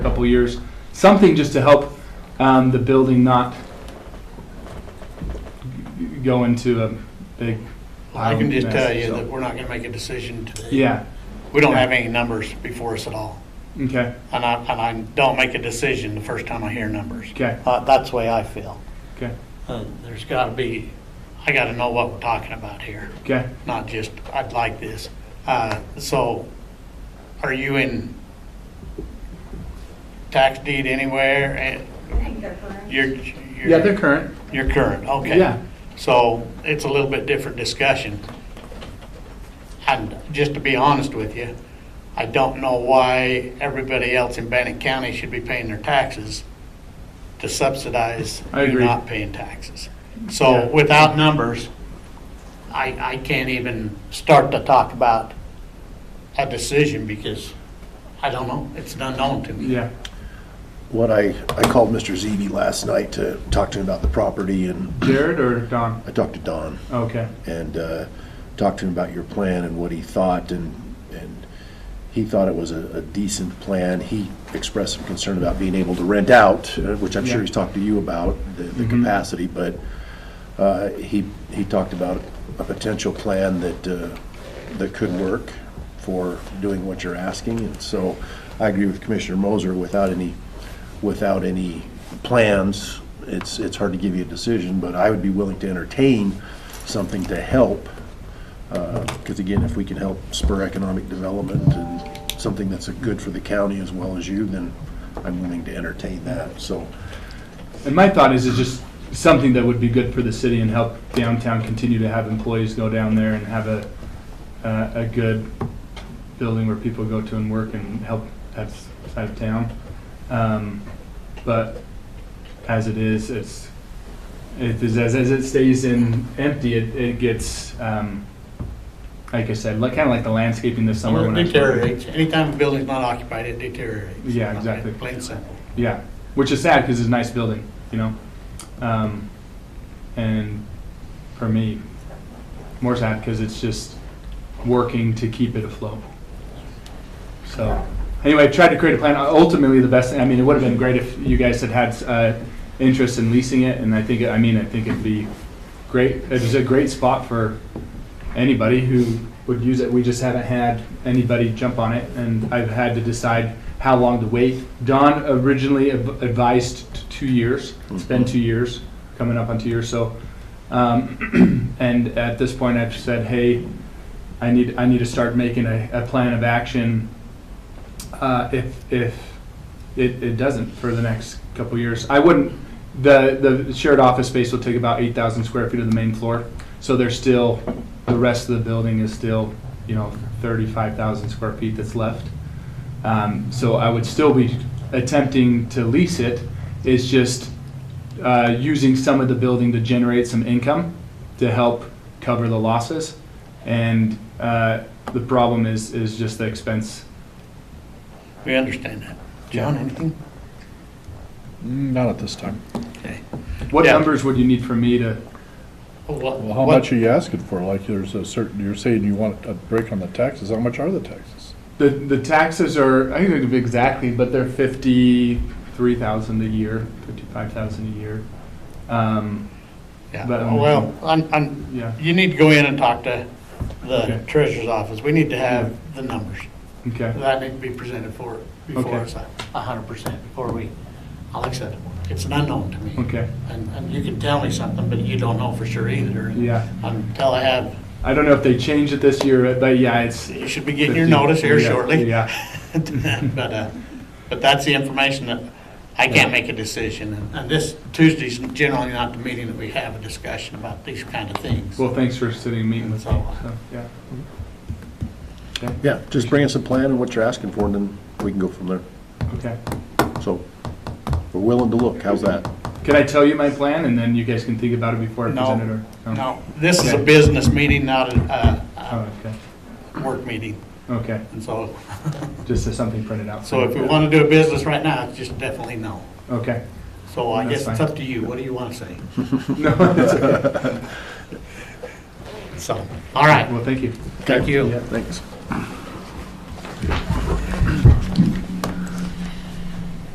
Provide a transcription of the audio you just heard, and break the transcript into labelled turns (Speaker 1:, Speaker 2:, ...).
Speaker 1: couple years, something just to help um, the building not g- go into a big.
Speaker 2: Well, I can just
Speaker 1: mess,
Speaker 2: tell you
Speaker 1: so-
Speaker 2: that we're not gonna make a decision today.
Speaker 1: Yeah,
Speaker 2: We don't have any numbers before us at all.
Speaker 1: okay,
Speaker 2: And I, and I don't make a decision the first time I hear numbers.
Speaker 1: okay,
Speaker 2: Uh, that's the way I feel.
Speaker 1: okay,
Speaker 2: Uh, there's gotta be, I gotta know what we're talking about here,
Speaker 1: okay.
Speaker 2: not just, I'd like this. Uh, so, are you in tax deed anywhere? And
Speaker 3: think they're current.
Speaker 2: You're,
Speaker 1: Yeah, they're
Speaker 2: you're,
Speaker 1: current.
Speaker 2: you're current, okay.
Speaker 1: Yeah.
Speaker 2: So it's a little bit different discussion. And just to be honest with you, I don't know why everybody else in Bannock County should be paying their taxes to subsidize
Speaker 1: I
Speaker 2: you
Speaker 1: agree.
Speaker 2: not paying taxes.
Speaker 1: Yeah.
Speaker 2: So without numbers, I, I can't even start to talk about a decision because I don't know, it's an unknown to me.
Speaker 1: Yeah,
Speaker 4: What I, I called Mr. Zeeby last night to talk to him about the property, and
Speaker 1: Jared or Don?
Speaker 4: I talked to Don,
Speaker 1: Okay,
Speaker 4: and uh, talked to him about your plan and what he thought, and, and he thought it was a a decent plan. He expressed some concern about being able to rent out, uh, which I'm
Speaker 1: Yeah.
Speaker 4: sure he's talked to you about, the- the
Speaker 1: Mhm.
Speaker 4: capacity, but uh, he, he talked about a potential plan that, uh, that could work for doing what you're asking, and so I agree with Commissioner Moser, without any, without any plans, it's, it's hard to give you a decision, but I would be willing to entertain something to help, because again, if we can help spur economic development and something that's good for the county as well as you, then I'm willing to entertain that, so.
Speaker 1: and my thought is it's just something that would be good for the city and help downtown continue to have employees go down there and have a, uh, a good building where people go to and work and help that s- side of town. Um, But as it is, it's, it is, as, as it stays in empty, it, it gets, um, like I said, like, kinda like the landscaping this summer. when I-
Speaker 2: Deteriorates, anytime a building's not occupied, it deteriorates.
Speaker 1: Yeah, exactly.
Speaker 2: Plain and simple.
Speaker 1: Yeah, which is sad because it's a nice building, you know. Um, and for me, more sad because it's just working to keep it afloat. So, anyway, I tried to create a plan. Ultimately, the best. I mean, it would have been great if you guys had had uh, interest in leasing it, and I think. I mean, I think it'd be great. It's a great spot for anybody who would use it. We just haven't had anybody jump on it, and I've had to decide how long to wait. Don originally adv- advised t- two years. It's been two years, coming up on two years, so. um, And at this point, I've said, hey, I need, I need to start making a, a plan of action. uh, If, if it, it doesn't for the next couple years. I wouldn't, the, the shared office space will take about eight thousand square feet of the main floor. So there's still, the rest of the building is still, you know, thirty-five thousand square feet that's left. Um, so I would still be attempting to lease it. It's just, uh, using some of the building to generate some income to help cover the losses. And, uh, the problem is, is just the expense.
Speaker 2: We understand that. John, anything?
Speaker 5: Mm, Not at this time.
Speaker 1: What
Speaker 2: Yeah.
Speaker 1: numbers would you need for me to?
Speaker 2: Oh,
Speaker 5: Well, how much are you asking for? Like, there's a certain, you're saying you want a break on the taxes. How much are the taxes?
Speaker 1: The, the taxes are, I don't know exactly, but they're fifty-three thousand a year, fifty-five thousand a year. Um,
Speaker 2: Yeah, Oh,
Speaker 1: But, um,
Speaker 2: well, I'm, I'm,
Speaker 1: yeah,
Speaker 2: you need to go in and talk to
Speaker 1: Okay.
Speaker 2: the treasurer's office. We need to have the numbers.
Speaker 1: okay,
Speaker 2: That need to be presented for, before
Speaker 1: Okay.
Speaker 2: us, a hundred percent, before we, like I said, it's an unknown to me.
Speaker 1: okay.
Speaker 2: And, and you can tell me something, but you don't know for sure either. And
Speaker 1: Yeah.
Speaker 2: Until I have,
Speaker 1: I don't know if they changed it this year, but yeah, it's,
Speaker 2: you should be getting your
Speaker 1: 50,
Speaker 2: notice here
Speaker 1: yeah,
Speaker 2: shortly.
Speaker 1: yeah.
Speaker 2: But, uh, but that's the information that, I can't make a decision. And- And this Tuesday's generally not the meeting that we have a discussion about these kind of things.
Speaker 1: well, thanks for sitting and meeting with me, so, yeah.
Speaker 4: Yeah, just bring us a plan and what you're asking for, and then we can go from there.
Speaker 1: Okay.
Speaker 4: So, we're willing to look, how's that?
Speaker 1: Can I tell you my plan and then you guys can think about it before I
Speaker 2: No,
Speaker 1: present it or?
Speaker 2: no, this is
Speaker 1: um,
Speaker 2: a
Speaker 1: Okay.
Speaker 2: business meeting, not a, uh,
Speaker 1: Oh, okay,
Speaker 2: uh work meeting.
Speaker 1: okay,
Speaker 2: And so,
Speaker 1: just as something printed out.
Speaker 2: so if we want to do a business right now, it's just definitely no.
Speaker 1: Okay,
Speaker 2: So I
Speaker 1: That's
Speaker 2: guess it's
Speaker 1: fine.
Speaker 2: up to you. What do you want to say?
Speaker 1: no, that's okay,
Speaker 2: So, all right.
Speaker 1: well, thank you.
Speaker 2: Thank you.
Speaker 4: Thanks.